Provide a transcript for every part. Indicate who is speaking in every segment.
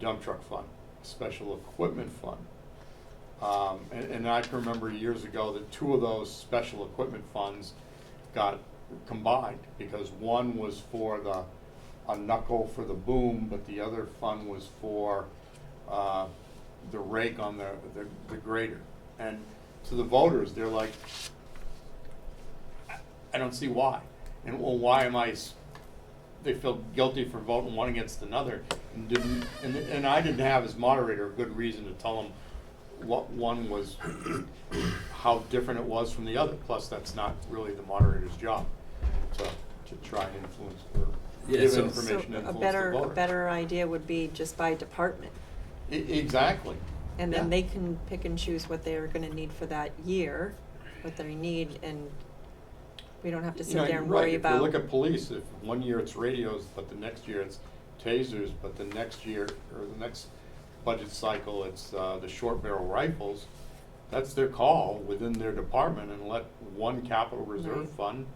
Speaker 1: dump truck fund, special equipment fund. Um, and, and I can remember years ago that two of those special equipment funds got combined because one was for the, a knuckle for the boom, but the other fund was for, uh, the rake on the, the, the grader. And to the voters, they're like, I don't see why. And well, why am I? s- They felt guilty for voting one against another, and didn't. And, and I didn't have as moderator a good reason to tell them what one was, how different it was from the other. Plus, that's not really the moderator's job to to try and influence or
Speaker 2: Yeah,
Speaker 1: give
Speaker 2: so-
Speaker 1: information
Speaker 3: So
Speaker 1: and influence
Speaker 3: a
Speaker 1: the
Speaker 3: better, a
Speaker 1: voter.
Speaker 3: better idea would be just by department.
Speaker 1: E- exactly.
Speaker 3: And then
Speaker 1: Yeah.
Speaker 3: they can pick and choose what they are gonna need for that year, what they need, and we don't have
Speaker 1: You
Speaker 3: to sit
Speaker 1: know,
Speaker 3: there
Speaker 1: you're
Speaker 3: and
Speaker 1: right.
Speaker 3: worry
Speaker 1: If
Speaker 3: about.
Speaker 1: you look at police, if one year it's radios, but the next year it's tasers, but the next year, or the next budget cycle, it's uh, the short barrel rifles, that's their call within their department and let one capital reserve
Speaker 3: Right.
Speaker 1: fund.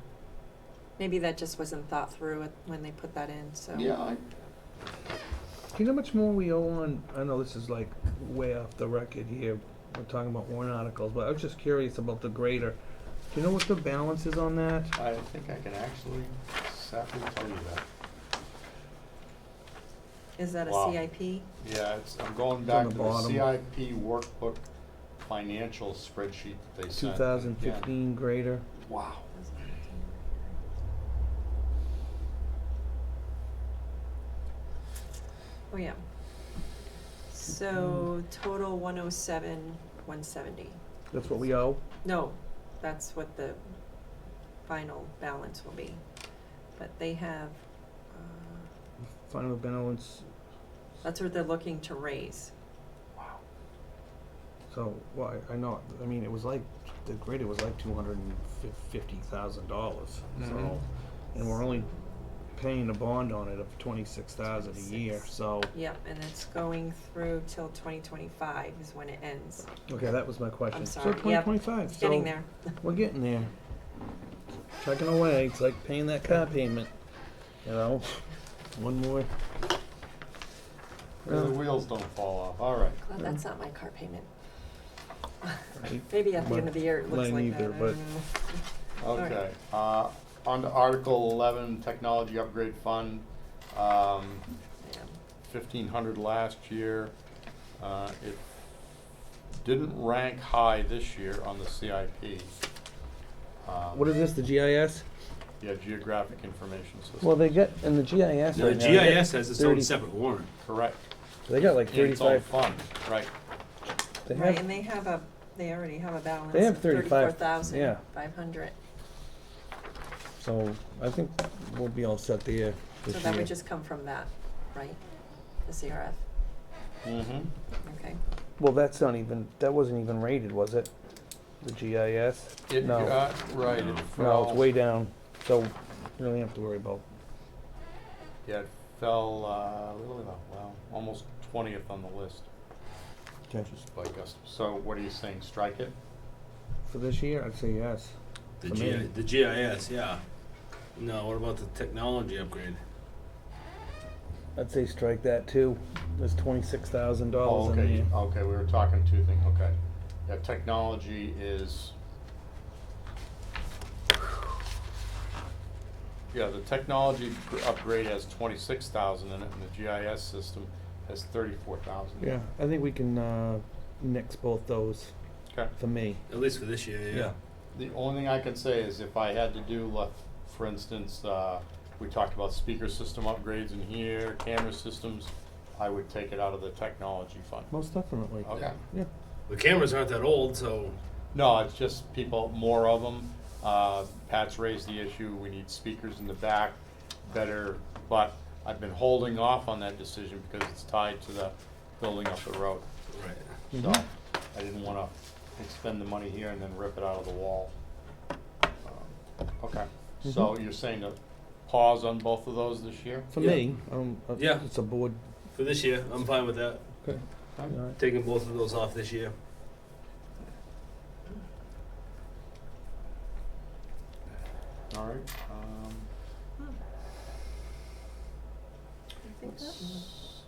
Speaker 3: Maybe that just wasn't thought through at- when they put that in, so.
Speaker 1: Yeah, I,
Speaker 4: Do you know how much more we owe on, I know this is like way off the record here, we're talking about warrant articles, but I was just curious about the grader. Do you know what the balance is on that?
Speaker 1: I think I can actually exactly tell you that.
Speaker 3: Is that a
Speaker 1: Wow.
Speaker 3: CIP?
Speaker 1: Yeah, it's, I'm going
Speaker 4: It's
Speaker 1: back
Speaker 4: on the
Speaker 1: to the
Speaker 4: bottom.
Speaker 1: CIP workbook financial spreadsheet that they
Speaker 4: Two
Speaker 1: sent.
Speaker 4: thousand
Speaker 1: uh, Yeah.
Speaker 4: fifteen grader?
Speaker 1: Wow.
Speaker 3: Oh, yeah. So
Speaker 1: Hmm.
Speaker 3: total one oh seven, one seventy.
Speaker 4: That's what we owe?
Speaker 3: No, that's what the final balance will be. But they have, uh,
Speaker 4: Final balance,
Speaker 3: that's what they're looking to raise.
Speaker 1: Wow.
Speaker 4: so, well, I, I know, I mean, it was like, the grader was like two hundred and fifty thousand dollars,
Speaker 1: Mhm.
Speaker 4: so. And we're only paying a bond on it of twenty-six thousand a year,
Speaker 3: 26.
Speaker 4: so.
Speaker 3: Yep, and it's going through till twenty twenty-five is when it ends.
Speaker 4: Okay, that was my question.
Speaker 3: sorry,
Speaker 4: So
Speaker 3: yep.
Speaker 4: twenty twenty-five,
Speaker 3: It's getting
Speaker 4: so-
Speaker 3: there.
Speaker 4: We're getting there. Chugging away. It's like paying that car payment. You know, one more.
Speaker 1: The wheels don't fall off, all right.
Speaker 3: Glad that's not my car payment.
Speaker 4: Right.
Speaker 3: Maybe at the end
Speaker 4: But
Speaker 3: of the year it looks
Speaker 4: mine
Speaker 3: like that, I
Speaker 4: either, but-
Speaker 3: don't know.
Speaker 1: Okay, uh, on to Article eleven, Technology Upgrade Fund, um,
Speaker 3: Yeah.
Speaker 1: fifteen hundred last year. Uh, it didn't rank high this year on the CIP. Um,
Speaker 4: What is this? The GIS?
Speaker 1: Yeah, Geographic Information
Speaker 4: Well,
Speaker 1: System,
Speaker 4: they got in the GIS.
Speaker 2: The
Speaker 4: right now, they got
Speaker 2: GIS has its own
Speaker 4: 30
Speaker 2: separate warrant.
Speaker 1: correct.
Speaker 4: They got like
Speaker 1: In its own
Speaker 4: thirty-five.
Speaker 1: fund, right.
Speaker 4: They
Speaker 3: Right, and
Speaker 4: have.
Speaker 3: they have a, they already have a balance
Speaker 4: have
Speaker 3: of
Speaker 4: 35,
Speaker 3: thirty-four thousand,
Speaker 4: yeah.
Speaker 3: five hundred.
Speaker 4: So I think we'll be all set there
Speaker 3: So
Speaker 4: this
Speaker 3: that
Speaker 4: year.
Speaker 3: would just come from that, right? The CRF,
Speaker 1: Mm-hmm.
Speaker 3: okay.
Speaker 4: well, that's not even. That wasn't even rated, was it? The GIS.
Speaker 1: It
Speaker 4: no.
Speaker 1: got, right, it
Speaker 2: No, it's
Speaker 4: no,
Speaker 1: fell.
Speaker 4: it's way down. So you don't have to worry about.
Speaker 1: Yeah, it fell, uh, a little bit, well, almost twentieth on the list,
Speaker 4: Okay.
Speaker 1: just by gusto. So what are you saying, strike it?
Speaker 4: For this year, I'd say yes.
Speaker 2: The,
Speaker 4: For
Speaker 2: G-
Speaker 4: me.
Speaker 2: the GIS, yeah. No, what about the technology upgrade?
Speaker 4: I'd say strike that too. There's twenty-six thousand
Speaker 1: Oh,
Speaker 4: dollars in
Speaker 1: okay,
Speaker 4: there.
Speaker 1: okay, we were talking two things, okay. Yeah, technology is. Yeah, the technology gr- upgrade has twenty-six thousand in it, and the GIS system has thirty-four thousand.
Speaker 4: Yeah, I think we can uh, mix both those
Speaker 1: Okay,
Speaker 4: for me.
Speaker 2: At least for this year, yeah.
Speaker 1: the only thing I can say is if I had to do, like, for instance, uh, we talked about speaker system upgrades in here, camera systems, I would take it out of the technology fund.
Speaker 4: most definitely.
Speaker 1: Okay.
Speaker 4: Yeah.
Speaker 2: The cameras aren't that old, so
Speaker 1: No, it's just people, more of them. Uh, Pat's raised the issue, we need speakers in the back, better, but I've been holding off on that decision because it's tied to the building up the road.
Speaker 2: right.
Speaker 1: So,
Speaker 4: Mm-hmm.
Speaker 1: I didn't wanna expend the money here and then rip it out of the wall. Um, Okay, so you're saying to pause on both of those this year?
Speaker 4: For
Speaker 2: Yeah.
Speaker 4: me, um, uh,
Speaker 2: Yeah.
Speaker 4: it's a board.
Speaker 2: For this year, I'm fine with that.
Speaker 4: Okay. All right.
Speaker 2: Taking both of those off this year.
Speaker 1: All right, um,
Speaker 3: I think that,